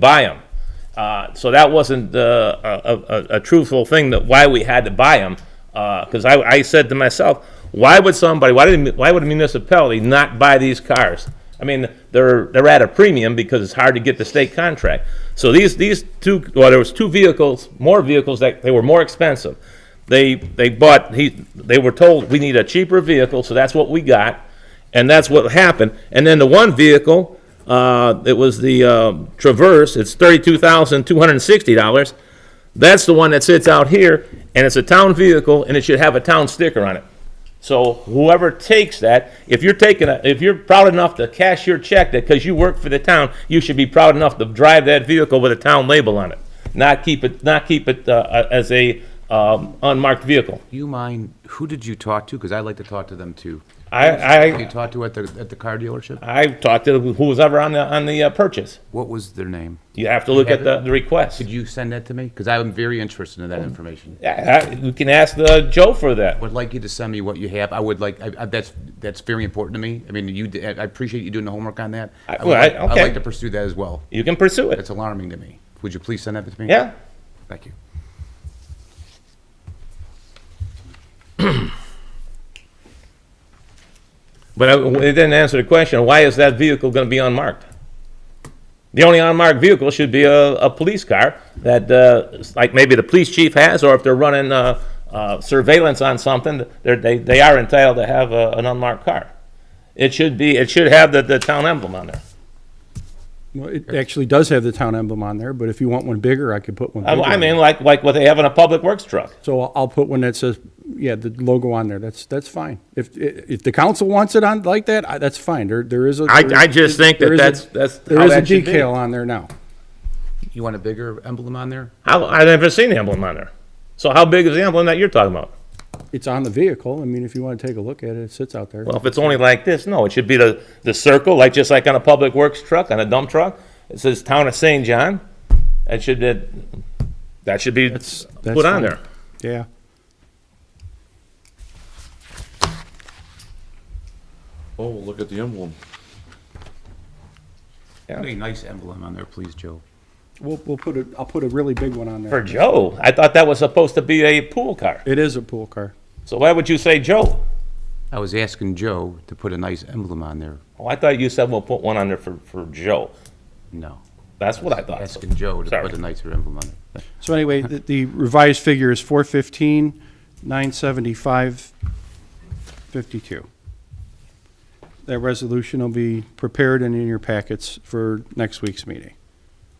buy them. Uh, so that wasn't uh, a, a, a truthful thing that why we had to buy them. Because I, I said to myself, why would somebody, why did, why would a municipality not buy these cars? I mean, they're they're at a premium because it's hard to get the state contract. So these these two, well, there was two vehicles, more vehicles that they were more expensive. They they bought he they were told we need a cheaper vehicle, so that's what we got. And that's what happened. And then the one vehicle, uh, it was the uh, Traverse, it's thirty-two thousand two hundred and sixty dollars. That's the one that sits out here, and it's a town vehicle, and it should have a town sticker on it. So whoever takes that, if you're taking, a, if you're proud enough to cash your check that because you work for the town, you should be proud enough to drive that vehicle with a town label on it, not keep it, not keep it uh, as a um, unmarked vehicle. You mind, who did you talk to? Because I like to talk to them too. I, You I, talked to at the, at the car dealership? I talked to who was ever on the on the uh, purchase. What was their name? You have to look at the, the request. Did you send that to me? Because I'm very interested in that information. Yeah, I- we can ask the Joe for that. I would like you to send me what you have. I would like, I, I, that's, that's very important to me. I mean, you, did- I appreciate you doing the homework on that. I- would well, I- like- I'd okay. like to pursue that as well. You can pursue it. That's alarming to me. Would you please send that to me? Yeah. Thank you. But I- it didn't answer the question, why is that vehicle going to be unmarked? The only unmarked vehicle should be a, a police car that, uh, like maybe the police chief has, or if they're running, uh, uh, surveillance on something, they're, they, they are entitled to have a, an unmarked car. It should be, it should have the, the town emblem on there. Well, it actually does have the town emblem on there, but if you want one bigger, I could put one I, bigger. I on mean, it. like, like what they have in a public works truck. So I'll- I'll put one that says, yeah, the logo on there. That's, that's fine. If, if the council wants it on like that, I- that's fine. There, there is a. I- I just think that there is a- that's- that's There how is a that should be. decal on there now. You want a bigger emblem on there? How, I've never seen the emblem on there. So how big is the emblem that you're talking about? It's on the vehicle. I mean, if you want to take a look at it, it sits out there. Well, if it's only like this, no, it should be the, the circle, like, just like on a public works truck, on a dump truck. It says Town of St. John. That should, that, that should be That's- that's put on fine. there. Yeah. Oh, well, look at the emblem. Put a nice emblem on there, please, Joe. We'll, we'll put a, I'll put a really big one on For there. Joe, I thought that was supposed to be a pool car. It is a pool car. So why would you say Joe? I was asking Joe to put a nice emblem on there. Oh, I thought you said we'll put one on there for, for Joe. No. That's what I thought. So- Asking Joe to Sorry. put a nicer emblem on there. So anyway, the, the revised figure is four fifteen, nine seventy-five, fifty-two. That resolution will be prepared and in your packets for next week's meeting.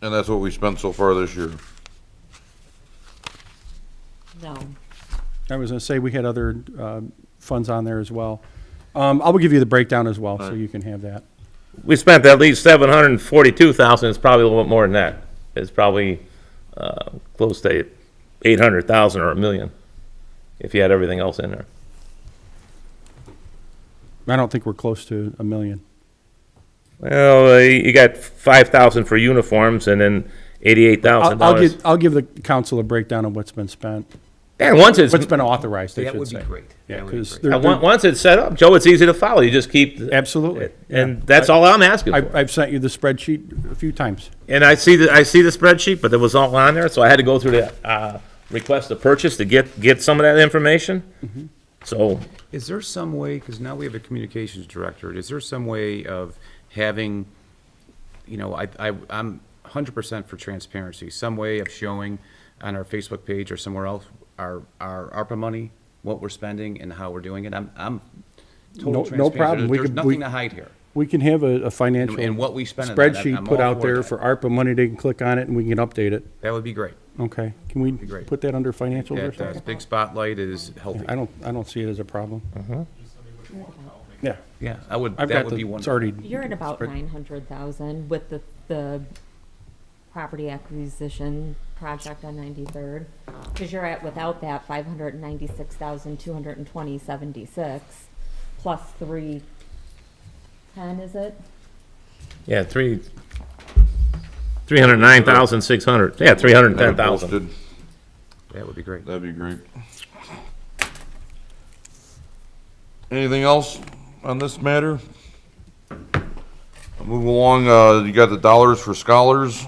And that's what we spent so far this year. No. I was gonna say, we had other, uh, funds on there as well. Um, I will give you the breakdown as well, so you can have that. We spent at least seven hundred and forty-two thousand, it's probably a little bit more than that. It's probably, uh, close to eight hundred thousand or a million, if you had everything else in there. I don't think we're close to a million. Well, uh, you got five thousand for uniforms and then eighty-eight thousand I'll, I'll dollars. give, I'll give the council a breakdown of what's been spent, And once it's, what's been authorized, I That should would be say. great. Yeah, That would be 'cause great. they're- and on- once it's set up, Joe, it's easy to follow. You just keep, Absolutely. and that's all I'm asking I, for. I've sent you the spreadsheet a few times. And I see the, I see the spreadsheet, but it was all on there, so I had to go through the, uh, request to purchase to get, get some of that information. Mm-hmm. So, Is there some way, because now we have a communications director, is there some way of having, you know, I, I, I'm hundred percent for transparency, some way of showing on our Facebook page or somewhere else, our, our ARPA money, what we're spending and how we're doing it? I'm, I'm No- total no transparency. problem. We There's could- we- nothing to hide here. We can have a, a financial. And- and what we spent on that, I'm- Spreadsheet I'm put all out for there that. for ARPA money, they can click on it and we can update it. That would be great. Okay, can we great. put that under financials or That, something? that big spotlight is healthy. I don't, I don't see it as a problem. Yeah, Yeah, I would, I've that got would the, be it's wonderful. already, You're at about nine hundred thousand with the, the property acquisition project on ninety-third. Cause you're at, without that, five hundred and ninety-six thousand, two hundred and twenty, seventy-six, plus three ten, is it? yeah, three, three hundred nine thousand, six hundred, yeah, three hundred and ten thousand. Posted. That would be great. That'd be great. Anything else on this matter? Move along, uh, you got the dollars for scholars.